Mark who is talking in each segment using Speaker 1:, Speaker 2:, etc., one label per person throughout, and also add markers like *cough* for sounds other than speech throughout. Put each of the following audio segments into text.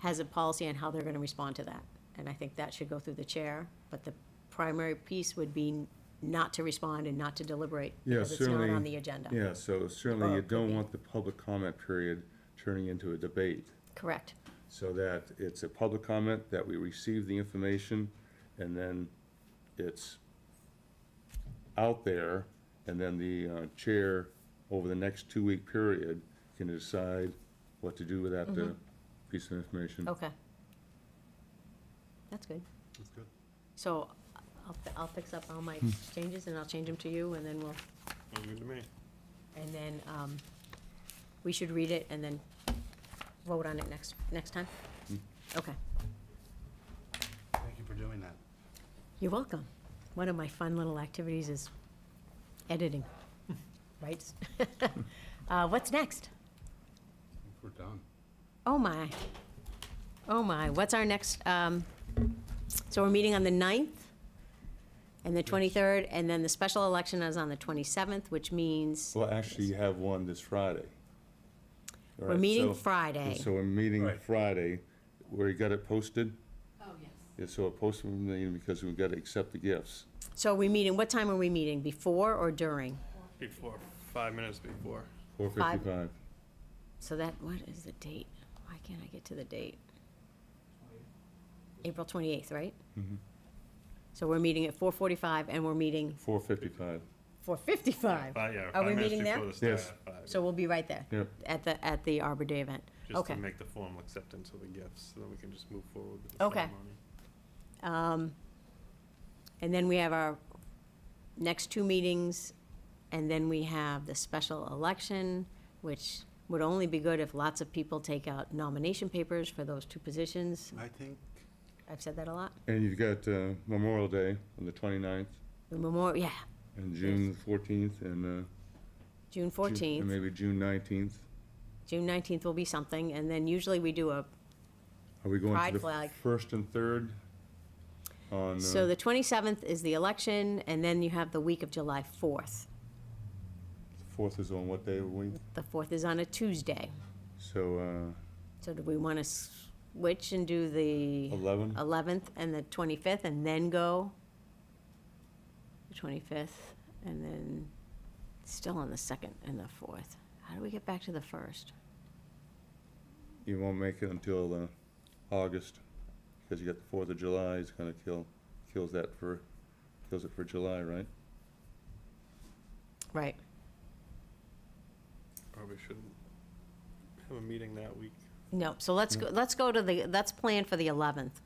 Speaker 1: has a policy on how they're gonna respond to that. And I think that should go through the chair, but the primary piece would be not to respond and not to deliberate.
Speaker 2: Yeah,
Speaker 1: Because it's not
Speaker 2: certainly.
Speaker 1: on the agenda.
Speaker 2: Yeah, so certainly
Speaker 1: Or
Speaker 2: you
Speaker 1: it could be.
Speaker 2: don't want the public comment period turning into a debate,
Speaker 1: Correct.
Speaker 2: so that it's a public comment, that we receive the information, and then it's out there, and then the uh, chair, over the next two-week period, can decide what to do with that
Speaker 1: Mm-hmm.
Speaker 2: uh, piece of information.
Speaker 1: Okay. That's good.
Speaker 3: That's good.
Speaker 1: So I'll, fi- I'll fix up all
Speaker 2: Hmm.
Speaker 1: my changes and I'll change them to you and then we'll,
Speaker 3: Sounds good to me.
Speaker 1: and then, um, we should read it and then vote on it next, next time?
Speaker 2: Hmm.
Speaker 1: Okay.
Speaker 3: Thank you for doing that.
Speaker 1: You're welcome. One of my fun little activities is editing, right? *laughs* Uh, what's next?
Speaker 3: I think We're done.
Speaker 1: Oh, my. Oh, my. What's our next, um, so we're meeting on the 9th and the 23rd, and then the special election is on the 27th, which means
Speaker 2: Well, actually, you have one this Friday. All
Speaker 1: we're
Speaker 2: right,
Speaker 1: meeting
Speaker 2: so-
Speaker 1: Friday.
Speaker 2: So we're meeting
Speaker 3: Right.
Speaker 2: Friday, where you got it posted,
Speaker 4: Oh, yes.
Speaker 2: Yeah, so a posted meeting because we've got to accept the gifts.
Speaker 1: So we meeting, what time are we meeting? Before or during?
Speaker 5: Before, five minutes before.
Speaker 2: Four
Speaker 1: Five.
Speaker 2: fifty-five.
Speaker 1: So that, what is the date? Why can't I get to the date? April 28th, right?
Speaker 5: Mm-hmm.
Speaker 1: So we're meeting at 4:45 and we're meeting
Speaker 2: Four fifty-five.
Speaker 1: 4:55.
Speaker 5: Five, yeah,
Speaker 1: Are we
Speaker 5: five minutes
Speaker 1: meeting there?
Speaker 5: before the start.
Speaker 2: Yes.
Speaker 5: at five,
Speaker 1: So we'll be right there.
Speaker 2: Yep.
Speaker 1: At the, at the Arbor Day event.
Speaker 5: Just
Speaker 1: Okay.
Speaker 5: to make the formal acceptance of the gifts, so then we can just move forward with the
Speaker 1: Okay.
Speaker 5: ceremony.
Speaker 1: um, And then we have our next two meetings, and then we have the special election, which would only be good if lots of people take out nomination papers for those two positions.
Speaker 3: I think,
Speaker 1: I've said that a lot.
Speaker 2: And you've got uh, Memorial Day on the 29th
Speaker 1: The memorial, yeah,
Speaker 2: and June fourteenth and. uh,
Speaker 1: June
Speaker 2: Ju- and
Speaker 1: 14th.
Speaker 2: Maybe June nineteenth.
Speaker 1: June nineteenth will be something, and then usually we do a,
Speaker 2: Are we going
Speaker 1: Pride
Speaker 2: to the
Speaker 1: flag.
Speaker 2: first and third on?
Speaker 1: so
Speaker 2: uh,
Speaker 1: the twenty-seventh is the election, and then you have the week of July fourth.
Speaker 2: Fourth is on what day of the week?
Speaker 1: The fourth is on a Tuesday,
Speaker 2: So uh,
Speaker 1: so do we wanna switch and do the
Speaker 2: eleven?
Speaker 1: eleventh and the twenty-fifth, and then go? The twenty-fifth, and then still on the second and the fourth. How do we get back to the first?
Speaker 2: You won't make it until uh, August, because you got the Fourth of July is gonna kill, kills that for, kills it for July, right?
Speaker 1: Right,
Speaker 5: Probably shouldn't have a meeting that week.
Speaker 1: no, so let's go, let's go to the, let's plan for the eleventh.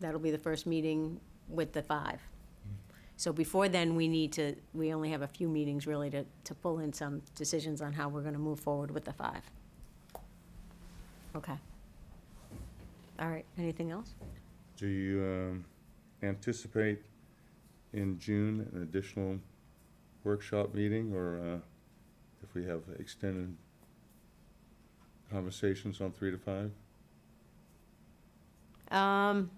Speaker 1: That'll be the first meeting with the five. So before then, we need to, we only have a few meetings really to, to pull in some decisions on how we're gonna move forward with the five. Okay. All right, anything else?
Speaker 2: Do you um, anticipate in June an additional workshop meeting, or uh, if we have extended conversations on three to five?
Speaker 1: Um,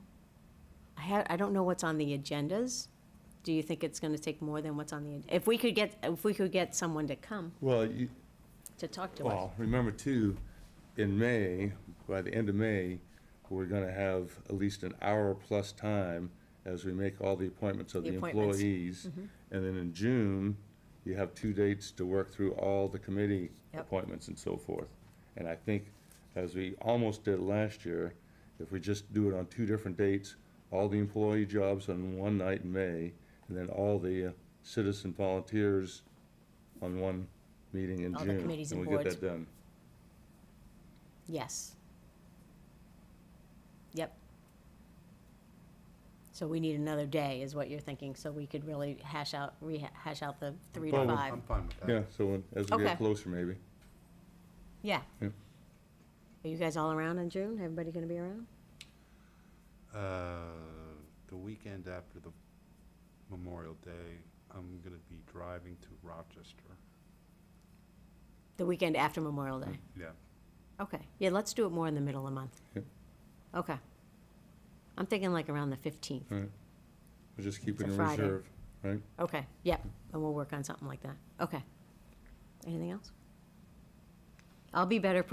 Speaker 1: I had, I don't know what's on the agendas. Do you think it's gonna take more than what's on the, if we could get, if we could get someone to come
Speaker 2: Well, you,
Speaker 1: to talk to us?
Speaker 2: well, remember too, in May, by the end of May, we're gonna have at least an hour plus time as we make all the appointments of
Speaker 1: The
Speaker 2: the
Speaker 1: appointments. Mm-hmm.
Speaker 2: employees. And then in June, you have two dates to work through all the committee
Speaker 1: Yep.
Speaker 2: appointments and so forth. And I think, as we almost did last year, if we just do it on two different dates, all the employee jobs on one night in May, and then all the uh, citizen volunteers on one meeting in
Speaker 1: All
Speaker 2: June.
Speaker 1: the committees and
Speaker 2: we'll
Speaker 1: boards.
Speaker 2: get that done.
Speaker 1: Yes. Yep. So we need another day, is what you're thinking, so we could really hash out, rehash out the three to
Speaker 2: Well, we-
Speaker 1: five.
Speaker 3: I'm fine with that.
Speaker 2: Yeah, so when- as we
Speaker 1: Okay.
Speaker 2: get closer, maybe.
Speaker 1: Yeah.
Speaker 2: Yeah.
Speaker 1: Are you guys all around in June? Everybody gonna be around?
Speaker 3: Uh, The weekend after the Memorial Day, I'm gonna be driving to Rochester.
Speaker 1: The weekend after Memorial Day?
Speaker 3: Yeah.
Speaker 1: Okay, yeah, let's do it more in the middle of the month.
Speaker 2: Yep.
Speaker 1: Okay. I'm thinking like around the fifteenth.
Speaker 2: All right. We'll just keep
Speaker 1: It's
Speaker 2: it
Speaker 1: a
Speaker 2: in
Speaker 1: Friday.
Speaker 2: reserve, right?
Speaker 1: Okay, yep, and we'll work on something like that. Okay. Anything else? I'll be better prepared